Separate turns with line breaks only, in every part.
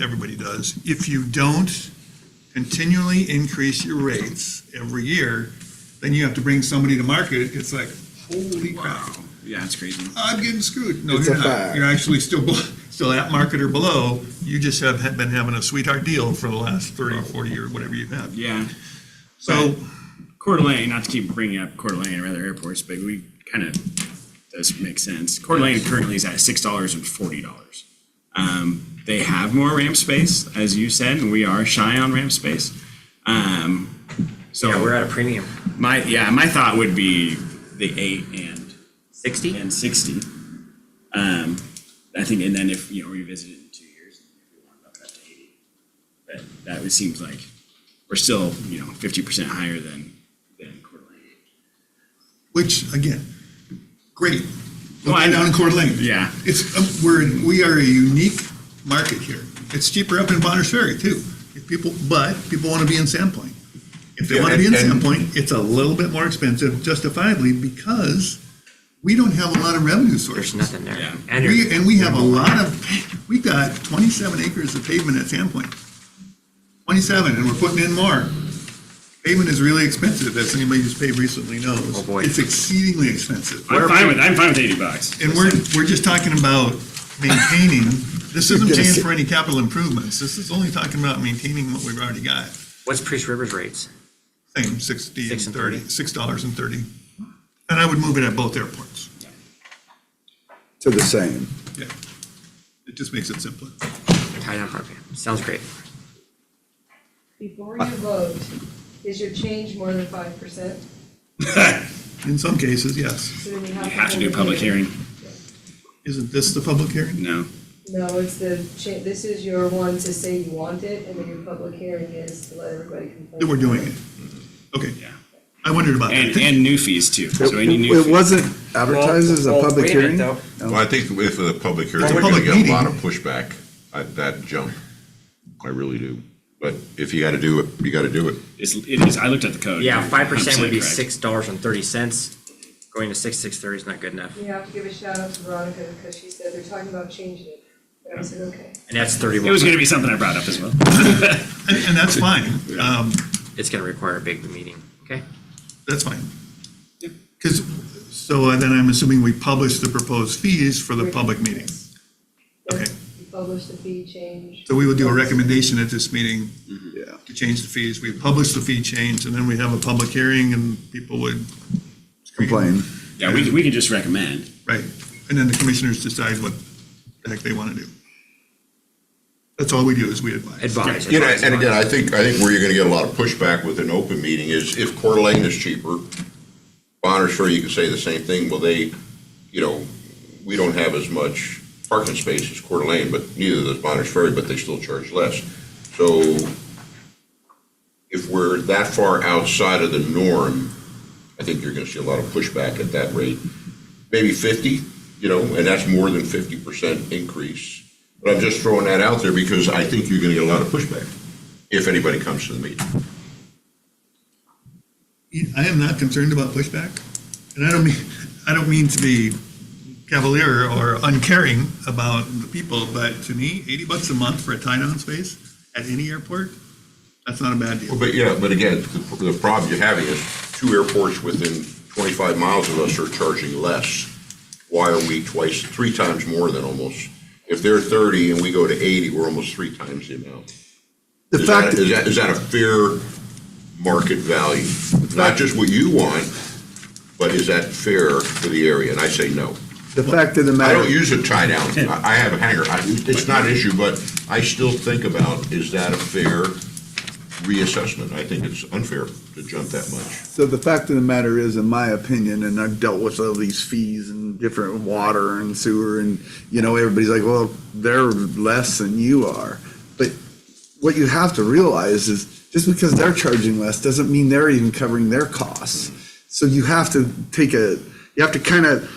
everybody does. If you don't continually increase your rates every year, then you have to bring somebody to market. It's like, holy crap,
Yeah, it's crazy.
I'm getting screwed. No,
It's
you're
a
not.
fact.
You're actually still, bel- still at market or below. You just have ha- been having a sweetheart deal for the last 30, 40 or whatever you have.
Yeah.
So,
Coeur d'Alene, not to keep bringing up Coeur d'Alene or other airports, but we kind of, does make sense. Coeur d'Alene currently is at six dollars and forty dollars. Um, they have more ramp space, as you said, and we are shy on ramp space. Um,
Yeah, we're
so
at a premium.
my, yeah, my thought would be the eight and,
Sixty?
and sixty. Um, I think, and then if, you know, revisit it in two years, if we want to up it up to eighty. But that would seems like, we're still, you know, fifty percent higher than, than Coeur d'Alene.
which again, great.
Well, I
Looking down in Coeur d'Alene.
Yeah.
It's, uh, we're, in- we are a unique market here. It's cheaper up in Bonner's Ferry too. If people, but people want to be in Sandpoint. If they
Yeah,
want to be in
and- and-
Sandpoint, it's a little bit more expensive justifiably because we don't have a lot of revenue
There's
sources.
nothing there.
Yeah.
And
We,
you're-
and we have a lot of, we got twenty-seven acres of pavement at Sandpoint. Twenty-seven, and we're putting in more. Pavement is really expensive, as anybody who's paved recently knows.
Oh, boy.
It's exceedingly expensive.
I'm fine with, I'm fine with eighty bucks.
And we're, we're just talking about maintaining, this isn't
You're gonna
paying
sit-
for any capital improvements, this is only talking about maintaining what we've already got.
what's Priest River's rates?
Same, sixty and
Six and
thirty,
thirty.
six dollars and thirty. And I would move it at both airports,
to the same.
yeah. It just makes it simpler.
Tied on program. Sounds great.
Before you vote, is your change more than five percent?
In some cases, yes.
You
You have to do a public hearing.
Isn't this the public hearing?
No.
No, it's the, cha- this is your one to say you want it, and then your public hearing is to let everybody complain.
That we're doing it. Okay,
Yeah.
I wondered about
And,
that.
and new fees too. So any
It
new.
it
fee-
wasn't advertised as a
Well, well,
public
wait a minute,
hearing?
though.
Well, I think if the public hearing,
It's a
we're gonna
public
get a
meeting.
lot of pushback at that jump. I really do. But if you gotta do it, you gotta do it.
It's, it is, I looked at the code.
Yeah, five percent would be
100% correct.
six dollars and thirty cents. Going to six, six thirty is not good enough.
You have to give a shout out to Veronica, because she said they're talking about changing it. And I said, okay.
And that's
It was
thirty-one.
gonna be something I brought up as well.
And, and that's fine, um,
It's gonna require a big meeting, okay?
that's fine. Because, so uh, then I'm assuming we publish the proposed fees for the public meeting.
Yes.
Okay.
You publish the fee change.
So we would do a recommendation at this meeting
Yeah.
to change the fees. We publish the fee change, and then we have a public hearing, and people would,
Complain.
Yeah, we, we can just recommend.
right, and then the commissioners decide what the heck they want to do. That's all we do, is we advise.
Advise.
You know,
advise,
and again,
advise.
I think, I think where you're gonna get a lot of pushback with an open meeting is if Coeur d'Alene is cheaper, Bonner's Ferry, you can say the same thing, well, they, you know, we don't have as much parking space as Coeur d'Alene, but neither does Bonner's Ferry, but they still charge less. So if we're that far outside of the norm, I think you're gonna see a lot of pushback at that rate. Maybe fifty, you know, and that's more than fifty percent increase. But I'm just throwing that out there because I think you're gonna get a lot of pushback if anybody comes to the meeting.
I am not concerned about pushback, and I don't mean, I don't mean to be cavalier or uncaring about the people, but to me, 80 bucks a month for a tie-down space at any airport, that's not a bad deal.
Well, But, yeah, but again, the the problem you're having is two airports within 25 miles of us are charging less. Why are we twice, three times more than almost? If they're 30 and we go to 80, we're almost three times the amount.
The
Is that,
fact,
is that, is that a fair market value? Not just what you want, but is that fair for the area? And I say no.
the fact of the
I don't
matter,
use a tie down. I I have a hanger. I- It's not an issue, but I still think about, is that a fair reassessment? I think it's unfair to jump that much.
so the fact of the matter is, in my opinion, and I've dealt with all these fees and different water and sewer and, you know, everybody's like, well, they're less than you are. But what you have to realize is just because they're charging less doesn't mean they're even covering their costs. So you have to take a, you have to kind of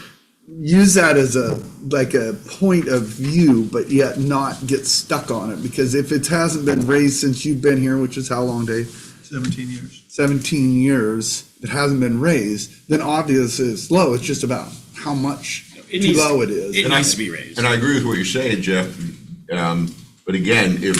use that as a like a point of view, but yet not get stuck on it because if it hasn't been raised since you've been here, which is how long, Dave?
17 years.
17 years, it hasn't been raised, then obviously it's low. It's just about how much
It
too
needs-
low it is.
It needs to be raised.
And I agree with what you're saying, Jeff. Um, But again, if